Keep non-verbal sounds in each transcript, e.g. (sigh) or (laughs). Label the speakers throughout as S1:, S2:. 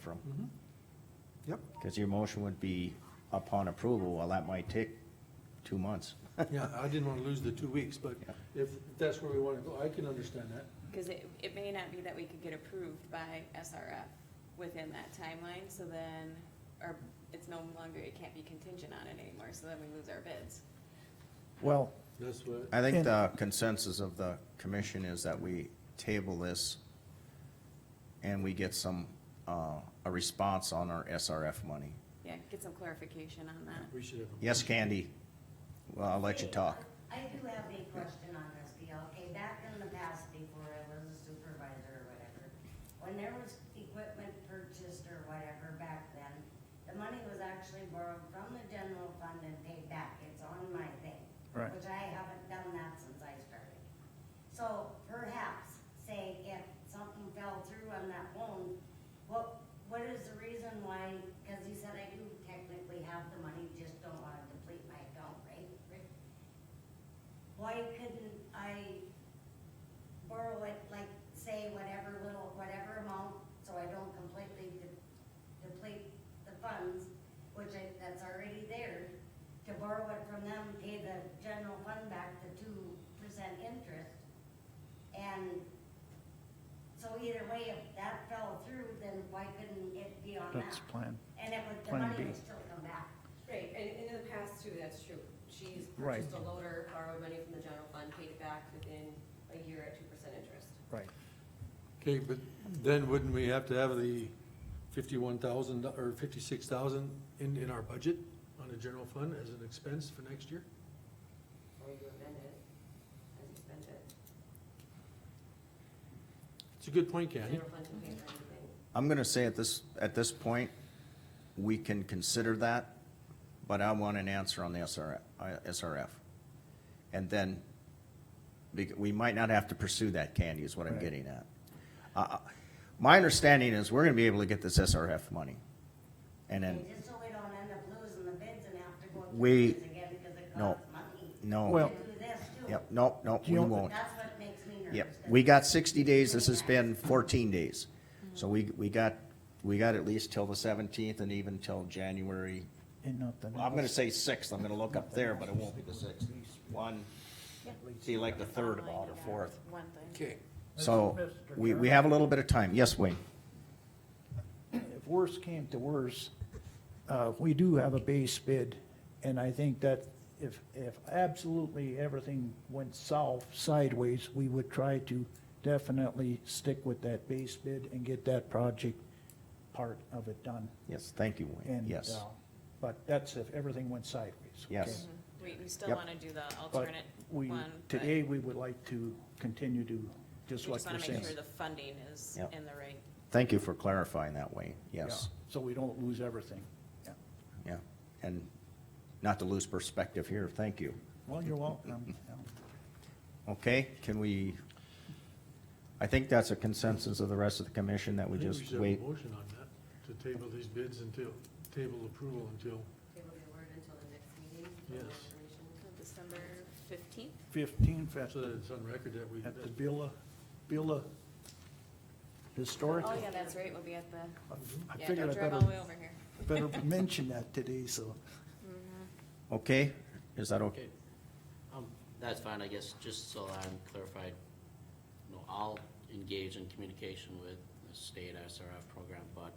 S1: from.
S2: Mm-hmm.
S1: (laughs)
S2: Yep,
S1: Because your motion would be upon approval, well, that might take two months.
S2: yeah, I didn't wanna lose the two weeks, but
S1: Yeah.
S2: if that's where we wanna go, I can understand that.
S3: Because it, it may not be that we could get approved by SRF within that timeline, so then, or it's no longer, it can't be contingent on it anymore, so then we lose our bids.
S1: Well.
S2: That's what,
S1: I think the consensus of the commission is that we table this and we get some, uh, a response on our SRF money.
S3: Yeah, get some clarification on that.
S2: we should have.
S1: Yes, Candy? Well, I'll let you talk.
S4: I do have a question on this deal. Okay, back in the past, before I was a supervisor or whatever, when there was equipment purchased or whatever back then, the money was actually borrowed from the general fund and paid back. It's on my thing.
S5: Right.
S4: Which I haven't done that since I started. So perhaps, say if something fell through on that loan, what, what is the reason why, cause you said I do technically have the money, just don't wanna deplete my account, right? Why couldn't I borrow it, like, say whatever little, whatever amount, so I don't completely de- deplete the funds, which I, that's already there, to borrow it from them, pay the general fund back the two percent interest, and so either way, if that fell through, then why couldn't it be on that?
S5: That's plan.
S4: And it would, the
S5: plan
S4: money
S5: B.
S4: would still come back.
S6: Right, and and in the past too, that's true. She's
S5: Right.
S6: purchased a loader, borrowed money from the general fund, paid it back within a year at two percent interest.
S5: Right.
S2: Okay, but then wouldn't we have to have the fifty-one thousand or fifty-six thousand in, in our budget on the general fund as an expense for next year?
S6: Or you amend it as you spend it.
S2: It's a good point, Candy.
S6: General fund can pay for anything.
S1: I'm gonna say at this, at this point, we can consider that, but I want an answer on the SRF, uh, SRF. And then, bec- we might not have to pursue that, Candy, is what I'm
S5: Right.
S1: getting at. Uh, uh, My understanding is we're gonna be able to get this SRF money. And then,
S4: Just so we don't end up losing the bids and have to go
S1: We-
S4: through this again, because it
S1: no.
S4: costs money.
S1: no,
S5: Well-
S4: To do this too.
S1: yep, no, no, we
S5: You know-
S1: won't.
S4: That's what makes me nervous.
S1: Yep,
S4: 'cause
S1: we got sixty days, this has been fourteen days. So we, we got, we got at least till the seventeenth and even till January
S5: And nothing.
S1: Well, I'm gonna say sixth, I'm gonna look up there, but it won't be the sixth. One, see, like the third of all, or fourth.
S3: Oh One thing.
S2: Okay.
S1: So, we, we have a little bit of time, yes, Wayne?
S5: If worse came to worse, uh, we do have a base bid, and I think that if, if absolutely everything went south, sideways, we would try to definitely stick with that base bid and get that project part of it done.
S1: Yes, thank you, Wayne,
S5: And,
S1: yes,
S5: uh, But that's if everything went sideways. okay?
S1: yes.
S3: We, we still
S1: Yep.
S3: want to do the
S5: But
S3: alternate
S5: we,
S3: Mm-hmm. one, but
S5: today, we would like to continue to,
S3: we
S5: just
S3: just
S5: like
S3: want
S5: you're
S3: to make
S5: saying.
S3: sure the funding is
S1: Yep.
S3: in the right.
S1: Thank you for clarifying that, Wayne,
S5: Yeah,
S1: yes,
S5: So we don't lose everything. Yeah.
S1: yeah. And not to lose perspective here, thank you.
S5: Well, you're welcome. (laughs) Yeah.
S1: Okay, can we, I think that's a consensus of the rest of the commission that we
S2: I think
S1: just
S2: should have a
S1: wait.
S2: Motion on that, to table these bids until, table approval until,
S6: Table the word until the next meeting. for more
S2: Yes.
S6: information.
S3: December fifteenth?
S5: Fifteen fest
S2: so that it's on record that we,
S5: at the
S2: that-
S5: Billa, Billa Historic.
S3: Oh, yeah, that's right, we'll be at the,
S5: I
S3: yeah,
S5: figured
S3: don't
S5: I
S3: drive
S5: better,
S3: all the way over here. (laughs)
S5: better mention that today, so.
S1: Okay, is that okay?
S7: Okay, um, that's fine, I guess, just so I'm clarified, you know, I'll engage in communication with the state SRF program, but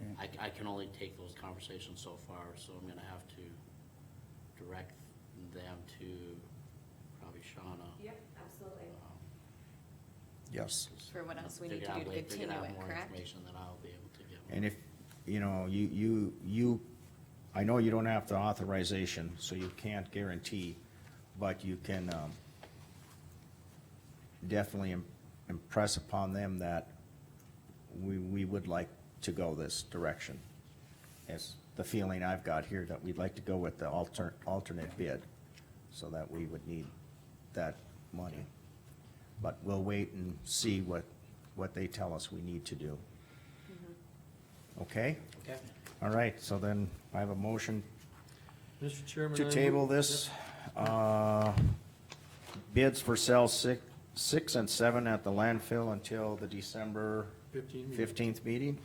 S5: Okay.
S7: I, I can only take those conversations so far, so I'm gonna have to direct them to probably Shauna.
S6: Yep, absolutely.
S7: um,
S1: Yes.
S3: For what else we need
S7: figure
S3: to
S7: out
S3: do to
S7: way- figure
S3: continue
S7: out
S3: it,
S7: more
S3: correct?
S7: Information that I'll be able to give. them.
S1: And if, you know, you, you, you, I know you don't have the authorization, so you can't guarantee, but you can, um, definitely im- impress upon them that we, we would like to go this direction. It's the feeling I've got here that we'd like to go with the alter, alternate bid, so that we would need that money. But we'll wait and see what, what they tell us we need to do. Okay?
S7: Okay.
S1: All right, so then I have a motion
S2: Mr. Chairman. I
S1: to
S2: move-
S1: table this. uh, Bids for cells six, six and seven at the landfill until the December
S2: Fifteen. meeting.
S1: fifteenth meeting.